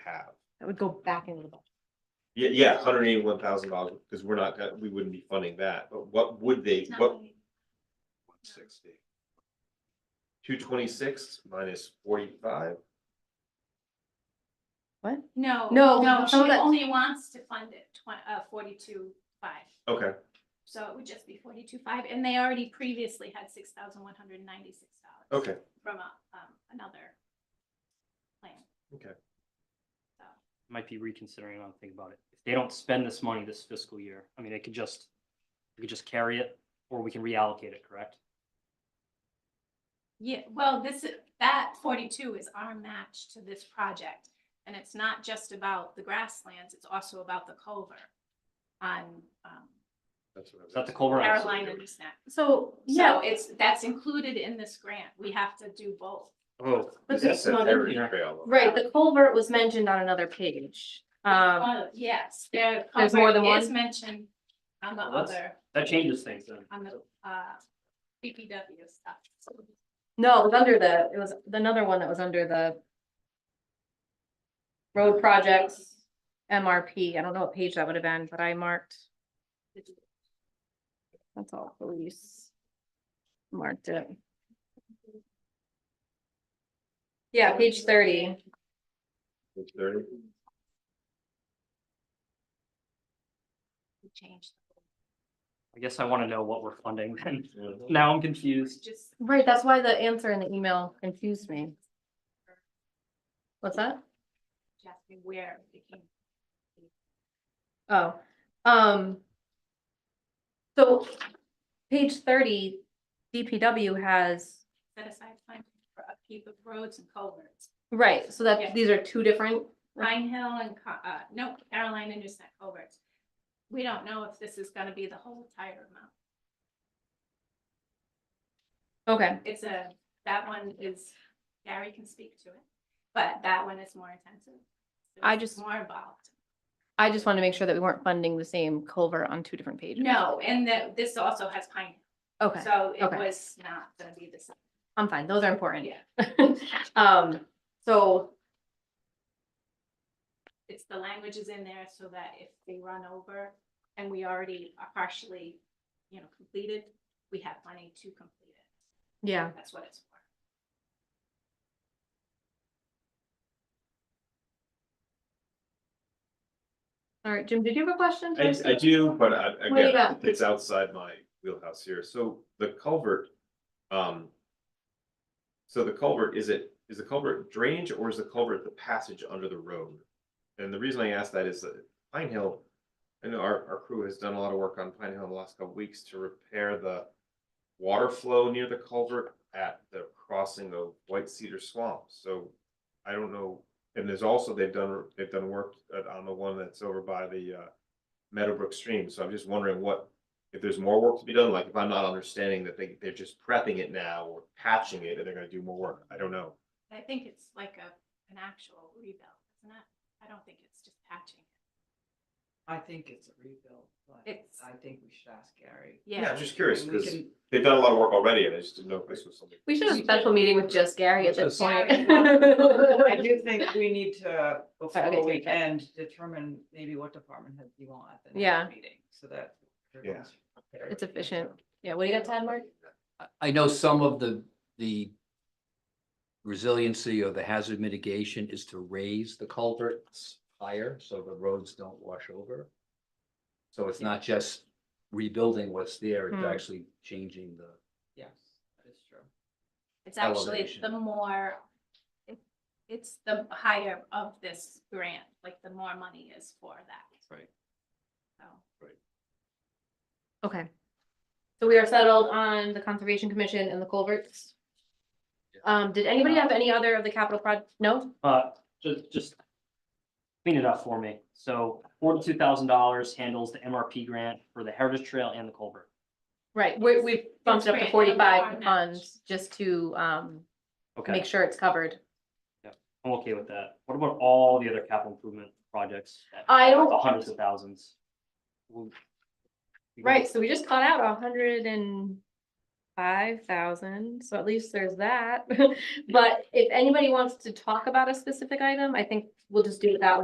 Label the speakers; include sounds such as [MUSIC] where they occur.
Speaker 1: have.
Speaker 2: That would go back into the budget.
Speaker 1: Yeah, yeah, hundred eighty-one thousand dollars, because we're not, gonna- we wouldn't be funding that, but what would they, what? sixty. Two twenty-six minus forty-five,
Speaker 2: What?
Speaker 3: No,
Speaker 2: No,
Speaker 3: no, she
Speaker 2: some of that-
Speaker 3: only wants to fund it twen- uh, forty-two five.
Speaker 1: okay,
Speaker 3: So it would just be forty-two five, and they already previously had six thousand one hundred and ninety-six dollars
Speaker 1: okay,
Speaker 3: from a, um, another plan.
Speaker 1: Okay.
Speaker 3: So,
Speaker 4: might be reconsidering, I don't think about it. If they don't spend this money this fiscal year, I mean, they could just, we could just carry it, or we can reallocate it, correct?
Speaker 3: yeah, well, this, is- that forty-two is our match to this project, and it's not just about the grasslands, it's also about the culvert on, um,
Speaker 1: that's what I was.
Speaker 4: Is that the Culver? House?
Speaker 3: Carolina Gooseneck.
Speaker 2: So,
Speaker 3: So it's, that's included in this grant, we have to do both.
Speaker 4: Oh,
Speaker 2: But
Speaker 1: Is that
Speaker 2: it's
Speaker 1: the
Speaker 2: not in
Speaker 1: Heritage
Speaker 4: here.
Speaker 1: Trail?
Speaker 2: Right, the culvert was mentioned on another page. Um,
Speaker 3: Oh, yes, there,
Speaker 2: There's more
Speaker 3: Culver
Speaker 2: than one?
Speaker 3: is mentioned on the
Speaker 4: Well, that's-
Speaker 3: other,
Speaker 4: that changes things then.
Speaker 3: on the, uh, BPW stuff.
Speaker 2: no, it was under the, it was another one that was under the road projects, MRP. I don't know what page that would have been, but I marked, that's all, police. Marked it. Yeah, page thirty.
Speaker 1: It's Thirty,
Speaker 3: We Changed.
Speaker 4: I guess I wanna know what we're funding then. [LAUGHS]
Speaker 1: yeah.
Speaker 4: Now I'm
Speaker 3: It's
Speaker 4: confused.
Speaker 3: just,
Speaker 2: Right, that's why the answer in the email confused me. What's that?
Speaker 3: just where it came.
Speaker 2: Oh, um. So page thirty, DPW has,
Speaker 3: set aside time for upkeep of roads and culverts.
Speaker 2: right, so
Speaker 3: Yeah.
Speaker 2: that, these are two different,
Speaker 3: Pine Hill and, Co- uh, no, Carolina Newsnet culverts. We don't know if this is gonna be the whole entire amount.
Speaker 2: okay,
Speaker 3: It's a, that one is, Gary can speak to it, but that one is more intensive.
Speaker 2: I
Speaker 3: It's
Speaker 2: just-
Speaker 3: More involved.
Speaker 2: I just wanted to make sure that we weren't funding the same culvert on two different pages.
Speaker 3: No, and that, this also has Pine Hill.
Speaker 2: Okay,
Speaker 3: So it
Speaker 2: okay.
Speaker 3: was not gonna be the same.
Speaker 2: I'm fine, those are important.
Speaker 3: Yeah,
Speaker 2: Um, [LAUGHS] so,
Speaker 3: it's the language is in there so that if they run over and we already are partially, you know, completed, we have money to complete it.
Speaker 2: yeah,
Speaker 3: That's what it's for.
Speaker 2: all right, Jim, did you have a question?
Speaker 1: I, I do, but I,
Speaker 2: What do you
Speaker 1: again,
Speaker 2: got?
Speaker 1: it's outside my wheelhouse here, so the culvert, um. So the culvert, is it, is the culvert drainage or is the culvert the passage under the road? And the reason I ask that is that Pine Hill, I know our, our crew has done a lot of work on Pine Hill in the last couple weeks to repair the. Water flow near the culvert at the crossing of White Cedar Swamp, so I don't know. And there's also, they've done, they've done work at- on the one that's over by the, uh. Meadowbrook Stream, so I'm just wondering what, if there's more work to be done, like if I'm not understanding that they, they're just prepping it now or patching it and they're gonna do more work, I don't know.
Speaker 3: I think it's like a, an actual rebuild, isn't it? I don't think it's just patching.
Speaker 5: I think it's a rebuild, but
Speaker 3: It's-
Speaker 5: I think we should ask Gary.
Speaker 1: Yeah, I'm
Speaker 3: Yeah,
Speaker 1: just curious,
Speaker 5: We
Speaker 1: because
Speaker 5: can-
Speaker 1: they've done a lot of work already and I just didn't know if this was something.
Speaker 2: We should have a special meeting with just Gary at this point. [LAUGHS]
Speaker 5: I do think we need to, before we
Speaker 2: okay.
Speaker 5: end, determine maybe what department heads you want at the
Speaker 2: Yeah.
Speaker 5: next meeting, so that. everyone's prepared.
Speaker 2: It's efficient. Yeah, what do you got, Tad, Mark?
Speaker 6: I- I know some of the, the resiliency or the hazard mitigation is to raise the culverts higher, so the roads don't wash over. So it's not just rebuilding what's there,
Speaker 2: Hmm.
Speaker 6: it's actually changing the,
Speaker 5: Yes, that is true.
Speaker 3: it's actually
Speaker 6: elevation.
Speaker 3: the more, it- it's the higher of this grant, like the more money is for that.
Speaker 6: Right.
Speaker 3: So,
Speaker 2: Okay. So we are settled on the Conservation Commission and the culverts. Um, did anybody have any other of the capital proj, no?
Speaker 4: Uh, just, just clean it up for me. So forty-two thousand dollars handles the MRP grant for the Heritage Trail and the Culver.
Speaker 2: Right, we, we bumped it up to
Speaker 3: It's great, it'll be
Speaker 2: forty-five
Speaker 3: our
Speaker 2: funds just to, um,
Speaker 4: Okay,
Speaker 2: make sure it's covered.
Speaker 4: I'm okay with that. What about all the other capital improvement projects? that-
Speaker 2: I don't-
Speaker 4: the Hundreds of thousands. We'll- we can-
Speaker 2: Right, so we just caught out a hundred and five five thousand, so at least there's [LAUGHS] that. But if anybody wants to talk about a specific item, I think we'll just do it that way.